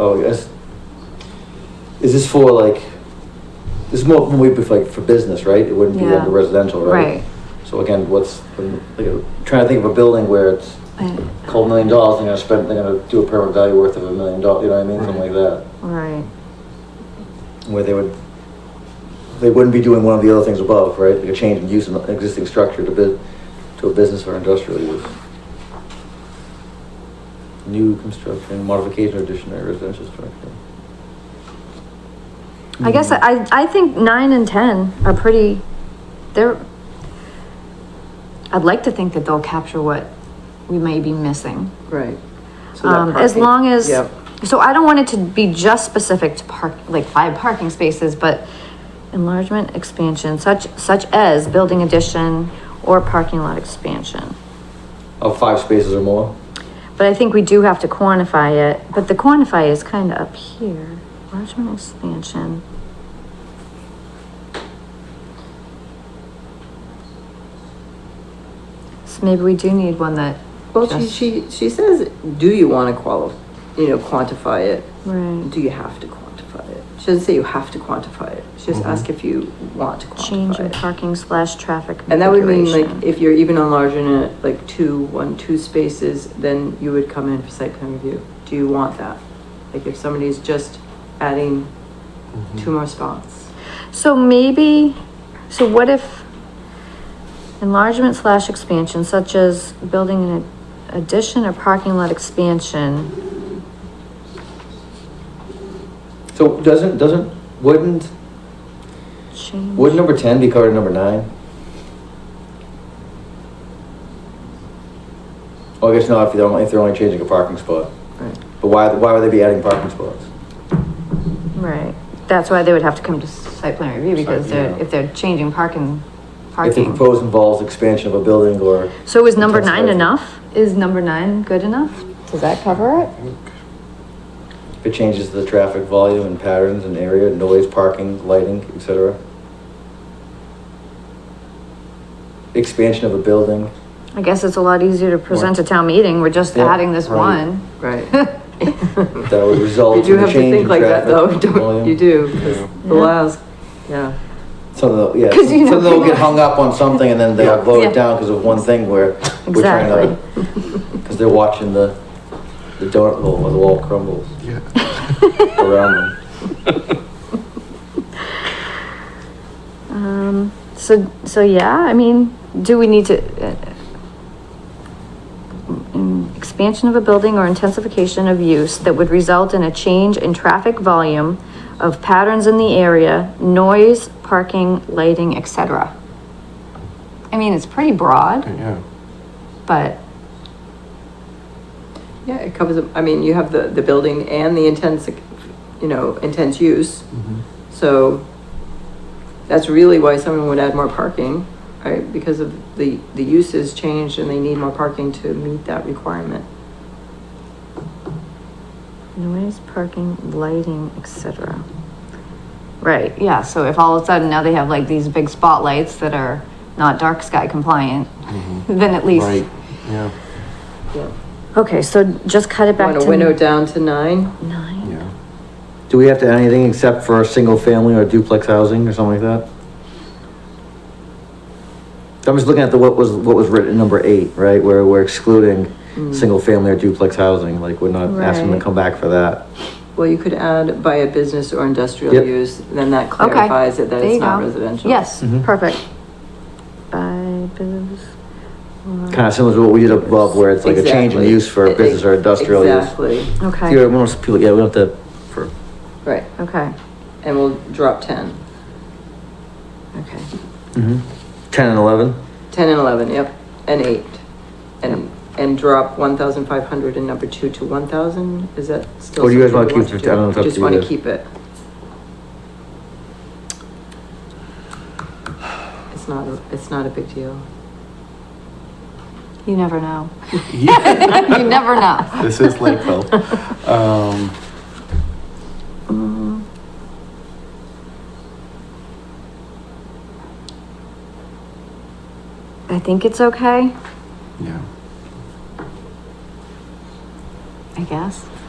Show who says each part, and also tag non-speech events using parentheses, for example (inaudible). Speaker 1: Oh, yes. Is this for like, this is more, when we, like, for business, right? It wouldn't be
Speaker 2: Yeah.
Speaker 1: under residential, right?
Speaker 2: Right.
Speaker 1: So again, what's, like, I'm trying to think of a building where it's
Speaker 2: I-
Speaker 1: a couple million dollars, they're gonna spend, they're gonna do a permanent value worth of a million dollars, you know what I mean? Something like that.
Speaker 2: Right,
Speaker 1: Where they would, they wouldn't be doing one of the other things above, right? Like a change in use of an existing structure to bid, to a business or industrial use. New construction, modification or addition to a residential structure.
Speaker 2: I guess I, I think nine and ten are pretty, they're, I'd like to think that they'll capture what we may be missing.
Speaker 3: Right. So that
Speaker 2: Um, as
Speaker 3: parking-
Speaker 2: long as,
Speaker 3: Yep.
Speaker 2: so I don't want it to be just specific to park, like five parking spaces, but enlargement, expansion, such, such as building addition or parking lot expansion.
Speaker 1: Of Oh, five spaces or more?
Speaker 2: But I think we do have to quantify it, but the quantify is kind of up here, enlargement, expansion. So maybe we do need one that.
Speaker 3: Well, she,
Speaker 2: just-
Speaker 3: she, she says, do you want to qualify, you know, quantify it?
Speaker 2: Right.
Speaker 3: Do you have to quantify it? She doesn't say you have to quantify it. She just asks if you want to
Speaker 2: Mm-hmm. Change in
Speaker 3: quantify it.
Speaker 2: parking slash traffic.
Speaker 3: And that would mean like,
Speaker 2: configuration.
Speaker 3: if you're even enlarging it, like two, one, two spaces, then you would come in for site plan review. Do you want that? Like if somebody's just adding
Speaker 2: Mm-hmm.
Speaker 3: two more spots.
Speaker 2: So maybe, so what if enlargement slash expansion such as building an addition or parking lot expansion?
Speaker 1: So doesn't, doesn't, wouldn't,
Speaker 2: Change.
Speaker 1: would number ten be covered in number nine? Oh, I guess not, if they're only, if they're only changing a parking spot.
Speaker 3: Right.
Speaker 1: But why, why would they be adding parking spots?
Speaker 2: Right, that's why they would have to come to site plan review because they're, if they're changing parking,
Speaker 1: If the
Speaker 2: parking.
Speaker 1: proposed involves expansion of a building or.
Speaker 2: So is number nine
Speaker 1: Intensification.
Speaker 2: enough? Is number nine good enough? Does that cover it?
Speaker 1: If it changes the traffic volume and patterns and area, noise, parking, lighting, et cetera. Expansion of a building.
Speaker 2: I guess it's a lot easier to present a town meeting, we're just
Speaker 1: Yeah,
Speaker 2: adding this
Speaker 1: right.
Speaker 2: one. (laughs)
Speaker 3: Right.
Speaker 1: (laughs) That would result
Speaker 3: You do
Speaker 1: in a
Speaker 3: have to
Speaker 1: change
Speaker 3: think
Speaker 1: in
Speaker 3: like that though, (laughs)
Speaker 1: traffic
Speaker 3: don't,
Speaker 1: volume.
Speaker 3: you do, 'cause the
Speaker 2: Yeah.
Speaker 3: last, yeah.
Speaker 1: Some of the, yeah,
Speaker 2: 'Cause
Speaker 1: some
Speaker 2: you know
Speaker 1: of them will
Speaker 2: people-
Speaker 1: get hung up on something and then they'll
Speaker 2: Yeah.
Speaker 1: vote
Speaker 2: Yeah.
Speaker 1: it down because of one thing where we're trying to, (laughs) because they're watching the, the donut hole where the wall crumbles
Speaker 4: Yeah.
Speaker 1: around them.
Speaker 2: Um, so, so yeah, I mean, do we need to? uh, mm, Expansion of a building or intensification of use that would result in a change in traffic volume of patterns in the area, noise, parking, lighting, etc. I mean, it's pretty broad,
Speaker 4: Yeah.
Speaker 2: but
Speaker 3: Yeah, it covers, I mean, you have the, the building and the intense, you know, intense use.
Speaker 1: Mm-hmm.
Speaker 3: So that's really why someone would add more parking, right? Because of the, the use has changed and they need more parking to meet that requirement.
Speaker 2: noise, parking, lighting, etc. Right, yeah, so if all of a sudden now they have like these big spotlights that are not dark sky compliant, then at least.
Speaker 4: Right. Yeah.
Speaker 3: Yeah.
Speaker 2: Okay, so just cut it back
Speaker 3: Want
Speaker 2: to.
Speaker 3: to window down to nine?
Speaker 2: Nine.
Speaker 4: Yeah.
Speaker 1: Do we have to add anything except for single family or duplex housing or something like that? I'm just looking at the, what was, what was written in number eight, right, where we're excluding single family or duplex housing, like we're not asking them
Speaker 2: Mm. Right.
Speaker 1: to come back for that.
Speaker 3: Well, you could add by a business or industrial
Speaker 1: Yep.
Speaker 3: use, then that
Speaker 2: Okay.
Speaker 3: clarifies it that
Speaker 2: There you
Speaker 3: it's not
Speaker 2: go.
Speaker 3: residential.
Speaker 2: Yes,
Speaker 1: Mhm.
Speaker 2: perfect. By business. or-
Speaker 1: Kind of similar to what we did above where it's like a change in
Speaker 3: Exactly.
Speaker 1: use for a business or industrial use.
Speaker 3: Exactly,
Speaker 1: See,
Speaker 2: Okay,
Speaker 1: most people, yeah, we don't have to, for,
Speaker 3: right,
Speaker 2: okay,
Speaker 3: and we'll drop ten.
Speaker 2: okay.
Speaker 1: ten and eleven?
Speaker 3: 10 and 11, yep, and 8. And, and drop 1,500 and number 2 to 1,000, is that still?
Speaker 1: Or do you guys
Speaker 3: something
Speaker 1: wanna
Speaker 3: want
Speaker 1: keep
Speaker 3: to
Speaker 1: it? I don't know, it's
Speaker 3: do?
Speaker 1: up
Speaker 3: Just
Speaker 1: to you
Speaker 3: want to
Speaker 1: guys.
Speaker 3: keep it. It's not, a- it's not a big deal.
Speaker 2: You never know. (laughs)
Speaker 4: yeah.
Speaker 2: You never know.
Speaker 4: This is Lakeville. Um,
Speaker 2: I think it's okay,
Speaker 4: yeah.
Speaker 2: I guess.